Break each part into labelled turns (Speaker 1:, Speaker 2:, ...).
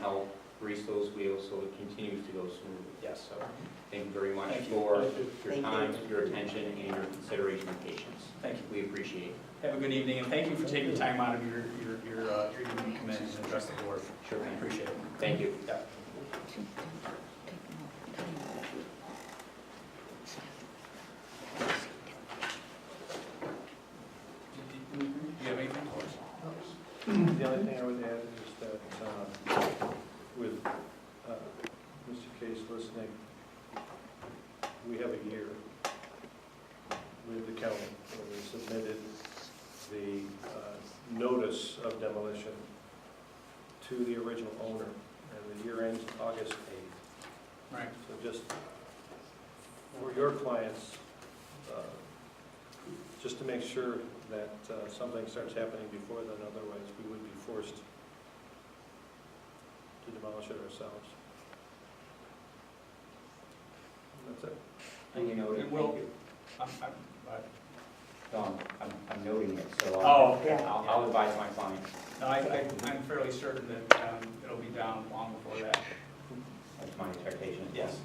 Speaker 1: help grease those wheels so it continues to go smoothly. Yes, so thank you very much
Speaker 2: Thank you.
Speaker 1: for
Speaker 2: Thank you.
Speaker 1: your
Speaker 3: Thank you.
Speaker 1: time, your attention, and your consideration and patience.
Speaker 2: Thank you.
Speaker 1: We appreciate it.
Speaker 2: Have a good evening, and thank you for taking time out of your, your, your uh, your evening to come in and address the board.
Speaker 1: Sure.
Speaker 2: I appreciate it.
Speaker 1: Thank you.
Speaker 2: Yeah. Do you have anything?
Speaker 4: The only thing I would add is that um, with uh, Mr. Case listening, we have a year with the county when we submitted the uh, notice of demolition to the original owner, and the year ends August 8th.
Speaker 2: Right.
Speaker 4: So just for your clients, uh, just to make sure that uh, something starts happening before then, otherwise we would be forced to demolish it ourselves. That's it.
Speaker 1: Thank you, noted.
Speaker 2: It will-
Speaker 1: Thank you.
Speaker 2: I'm- I'm- I-
Speaker 1: No, I'm- I'm, I'm noting it, so I'll,
Speaker 2: Oh,
Speaker 3: Yeah.
Speaker 1: I'll I'll advise my client.
Speaker 2: no, I, I- I'm fairly certain that um, it'll be down long before that.
Speaker 1: That's my expectation.
Speaker 2: Yes.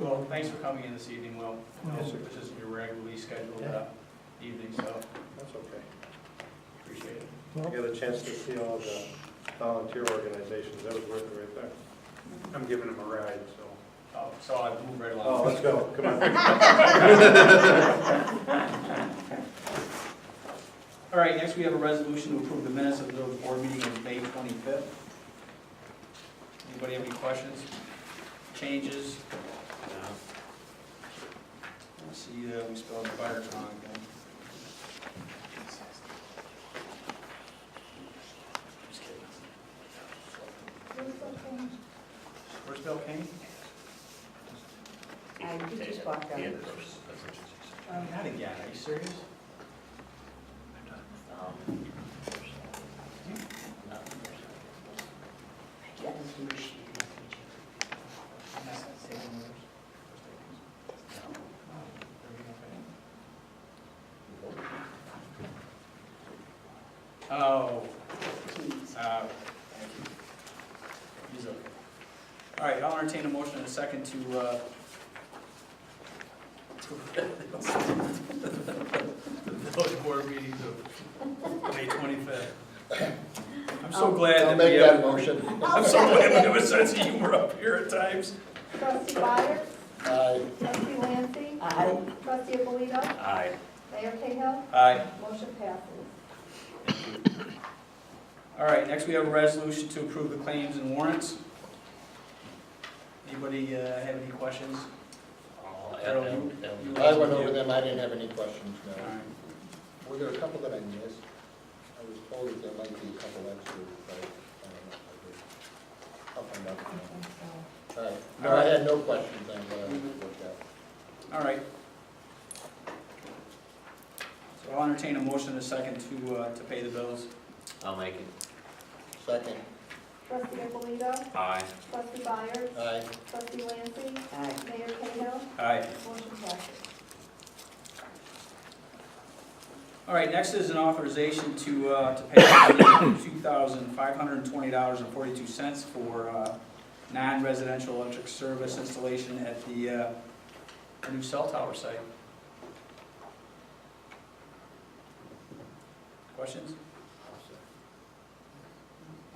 Speaker 2: Well, thanks for coming in this evening, Will. This is your regularly scheduled uh, evening, so
Speaker 4: That's okay.
Speaker 2: appreciate it.
Speaker 4: I got a chance to see all the volunteer organizations, that was worth it right there. I'm giving them a ride, so.
Speaker 2: Oh, So I move right
Speaker 4: Oh,
Speaker 2: along.
Speaker 4: let's go, come on.
Speaker 2: All right, next we have a resolution to approve the minutes of the board meeting of May 25th. Anybody have any questions, changes? Let's see, uh, we spelled fire wrong again. Just kidding. Where's Bill Kane?
Speaker 3: I he just walked out.
Speaker 2: Not again, are you serious? Oh, uh, he's okay. All right, I'll entertain a motion in a second to, uh, the village board meeting of May twenty-fifth. I'm so glad that we have.
Speaker 5: motion.
Speaker 2: I'm so glad we have a sense of humor up here at times.
Speaker 6: Trustee Byers,
Speaker 5: Aye.
Speaker 6: trustee Lancy,
Speaker 3: Aye.
Speaker 6: trustee Alito,
Speaker 2: Aye.
Speaker 6: Mayor Cahill,
Speaker 2: Aye.
Speaker 6: motion passes.
Speaker 2: All right, next we have a resolution to approve the claims and warrants. Anybody uh, have any questions? Carol, you- you-
Speaker 5: I went over them, I didn't have any questions,
Speaker 2: All
Speaker 5: no.
Speaker 2: right.
Speaker 5: Were there a couple that I missed? I was told that there might be a couple extra, but I don't know. if I did. I'll find out. All right. No, I had no questions on what I uh, looked at.
Speaker 2: All right. So I'll entertain a motion in a second to, uh, to pay the bills.
Speaker 1: I'll make it.
Speaker 5: Second,
Speaker 6: Trustee Alito,
Speaker 1: Aye.
Speaker 6: trustee Byers,
Speaker 5: aye.
Speaker 6: trustee Lancy,
Speaker 3: Aye.
Speaker 6: Mayor Cahill,
Speaker 2: Aye.
Speaker 6: motion passes.
Speaker 2: All right, next is an authorization to, uh, to pay $2,520.42 for uh, non-residential electric service installation at the uh, the new cell tower site. Questions?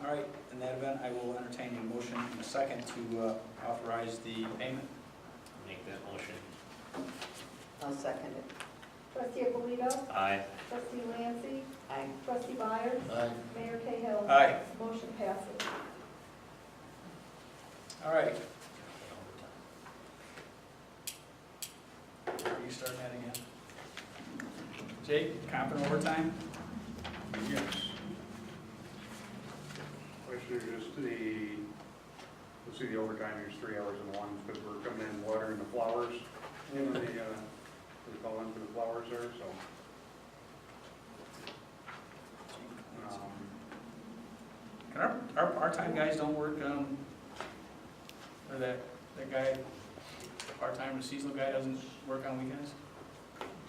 Speaker 2: All right, in that event, I will entertain a motion in a second to uh, authorize the payment.
Speaker 1: Make that motion.
Speaker 3: I'll second it.
Speaker 6: Trustee Alito,
Speaker 1: Aye.
Speaker 6: trustee Lancy,
Speaker 3: Aye.
Speaker 6: trustee Byers,
Speaker 5: Aye.
Speaker 6: Mayor Cahill.
Speaker 2: Aye.
Speaker 6: Motion passes.
Speaker 2: All right. Are you starting that again? Jake, comp and overtime?
Speaker 7: Yes. Actually, just the, let's see, the overtime is three hours and one, because we're coming in watering the flowers, you know, the, uh, we call in for the flowers there, so. um,
Speaker 2: Can our, our part-time guys don't work, um, or that, that guy, the part-time or seasonal guy doesn't work on weekends?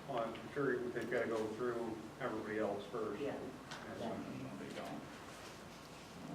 Speaker 7: Well, I'm sure they've got to go through everybody else first.
Speaker 3: Yeah.
Speaker 7: and,